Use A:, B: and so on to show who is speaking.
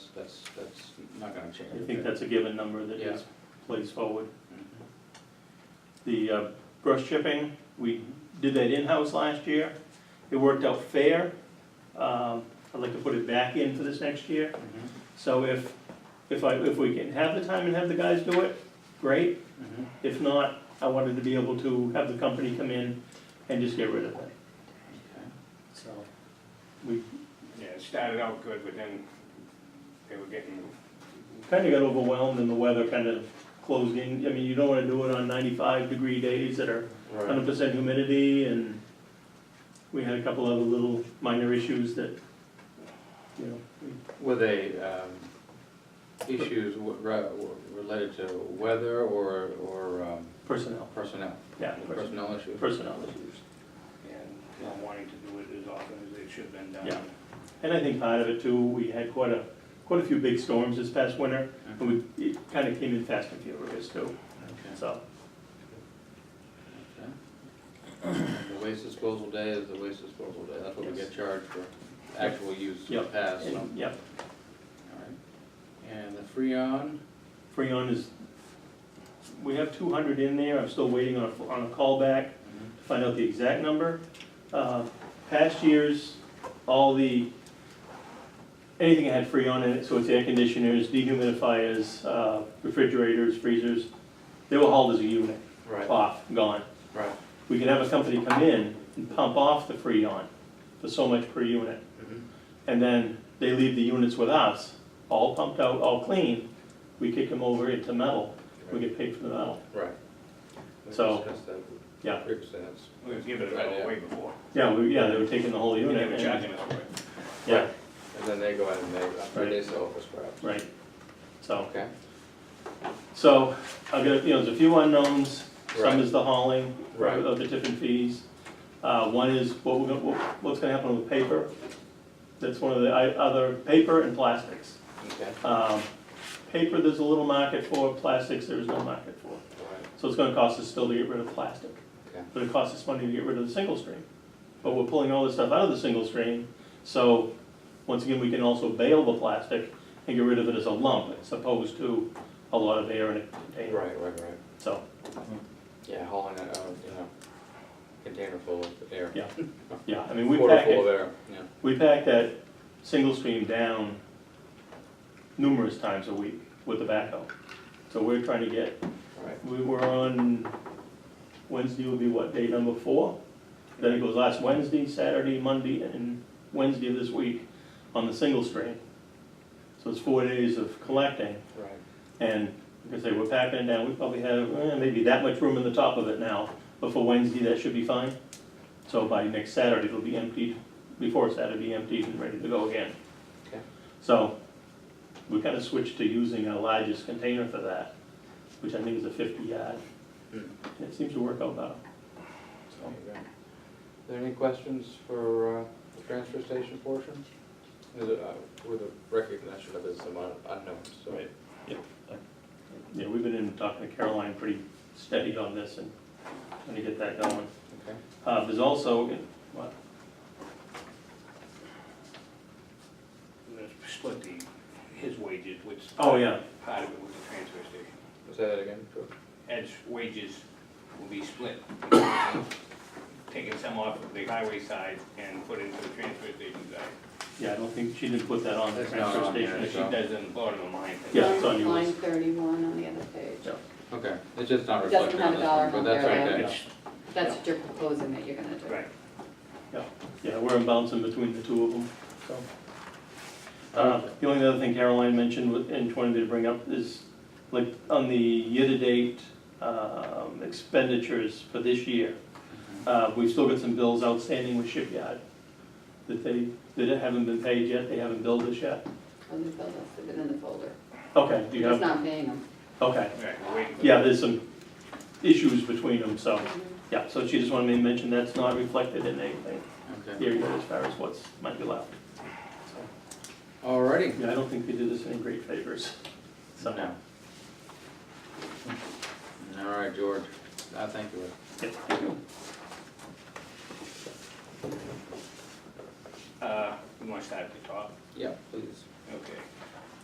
A: that's, that's not gonna change.
B: I think that's a given number that is placed forward.
A: Mhm.
B: The uh, brush chipping, we did that in-house last year. It worked out fair. Um, I'd like to put it back in for this next year.
A: Mhm.
B: So if, if I, if we can have the time and have the guys do it, great.
A: Mhm.
B: If not, I wanted to be able to have the company come in and just get rid of it.
A: Okay.
B: So we
C: Yeah, it started out good, but then they were getting,
B: kind of got overwhelmed and the weather kind of closed in. I mean, you don't want to do it on ninety-five degree days that are hundred percent humidity and we had a couple other little minor issues that, you know, we-
A: Were they, um, issues w- re- w- related to weather or, or um,
B: personnel,
A: personnel?
B: yeah, pers-
A: Personnel issues? Mm-hmm.
B: personnel issues.
C: and not wanting to do it as often as it should have been done.
B: Yeah. And I think part of it too, we had quite a, quite a few big storms this past winter and we, it kind of came in fast and furious too,
A: Okay.
B: so.
A: Okay. The waste disposal day is the waste disposal day, that's what we
B: Yes.
A: get charged for, actual use in the
B: Yep.
A: past, so,
B: And, yeah,
A: alright. And the Freon,
B: Freon is, we have two hundred in there, I'm still waiting on a, on a callback. to find out the exact number. Uh, Past years, all the, anything that had Freon in it, so it's air conditioners, dehumidifiers, uh, refrigerators, freezers, they were hauled as a unit,
A: right,
B: off, gone.
A: right.
B: We could have a company come in and pump off the Freon for so much per unit.
A: Mhm.
B: And then they leave the units with us, all pumped out, all clean. We kick them over into metal, we get paid for the metal.
A: Right. We
B: So-
A: discussed that with
B: Yeah.
A: Rick, so that's-
C: We were giving it all away before.
B: Yeah, we, yeah, they were taking the whole
C: They
B: unit.
C: were
B: and-
C: charging us for it.
B: Yeah,
A: And then they go out and they,
B: Right.
A: they sell for scrap.
B: right. So.
A: Okay,
B: So, I've got, you know, there's a few unknowns,
A: Right.
B: some is the hauling
A: Right.
B: of the different fees. Uh, one is what we're gonna, what- what's gonna happen with paper, that's one of the i- other, paper and plastics.
A: okay,
B: Um, Paper, there's a little market for, plastics, there is no market for.
A: all right,
B: So it's gonna cost us still to get rid of plastic,
A: okay,
B: but it costs us money to get rid of the single stream. But we're pulling all this stuff out of the single stream, so, once again, we can also bail the plastic and get rid of it as a lump, as opposed to a lot of air in a container.
A: right, right, right.
B: So,
A: Yeah, hauling it out, you know, container full of air.
B: Yeah. yeah, I mean, we
A: Quarter
B: pack
A: full of
B: it,
A: air, yeah,
B: we pack that single stream down numerous times a week with the backhoe. So we're trying to get,
A: all right,
B: we were on, Wednesday would be what, day number four? Then it goes last Wednesday, Saturday, Monday, and Wednesday of this week on the single stream. So it's four days of collecting,
A: right.
B: and like I say, we're packing it down, we probably have, eh, maybe that much room in the top of it now, but for Wednesday, that should be fine. So by next Saturday, it'll be emptied, before Saturday, emptied and ready to go again.
A: Okay.
B: So, we kind of switched to using our largest container for that, which I think is a fifty yard.
A: Hmm.
B: And it seems to work out better. So,
A: There you go. Are there any questions for uh, the transfer station portion? Is it, uh, With a recognition of this amount of unknowns, so.
B: Right. yeah, we've been in talking to Caroline pretty steady on this and trying to get that going.
A: Okay,
B: Uh, there's also, what,
C: We were gonna Split the, his wages, which.
B: Oh, yeah.
C: Part of it was the transfer station.
A: say that again, George.
C: Ed's wages will be split. Taking some off of the highway side and put into the transfer station side.
B: Yeah, I don't think, she didn't put that on the
A: That's not
B: transfer
A: on here.
B: station.
C: But she does it in the bottom of mine.
B: Yeah, it's on yours.
D: Line thirty-one on the other page.
B: Yeah.
A: Okay, it's just not
D: Doesn't
A: reflected
D: have
A: on
D: a
A: this
D: dollar
A: one, but
D: amount
A: that's
D: there,
A: okay.
D: yeah.
C: It's-
D: That's what you're proposing that you're gonna do.
C: Right.
B: Yeah, we're bouncing between the two of them, so. Uh, The only other thing Caroline mentioned with- and she wanted me to bring up is, like, on the year-to-date um, expenditures for this year,
A: Mm-hmm.
B: uh, we've still got some bills outstanding with shipyard that they, that haven't been paid yet, they haven't billed us yet.
D: On the bill, that's been in the folder.
B: Okay, do you
D: He's
B: have,
D: not paying them.
B: okay.
C: Right, we're waiting for.
B: Yeah, there's some issues between them, so, yeah, so she just wanted me to mention that's not reflected in anything.
A: Okay,
B: area as far as what's might be left. So,
A: alrighty.
B: Yeah, I don't think they did us any great favors. So,
A: No. Alright, George, I thank you.
B: yeah, thank you.
C: Uh, we want to start at the top.
A: Yeah, please.
C: Okay.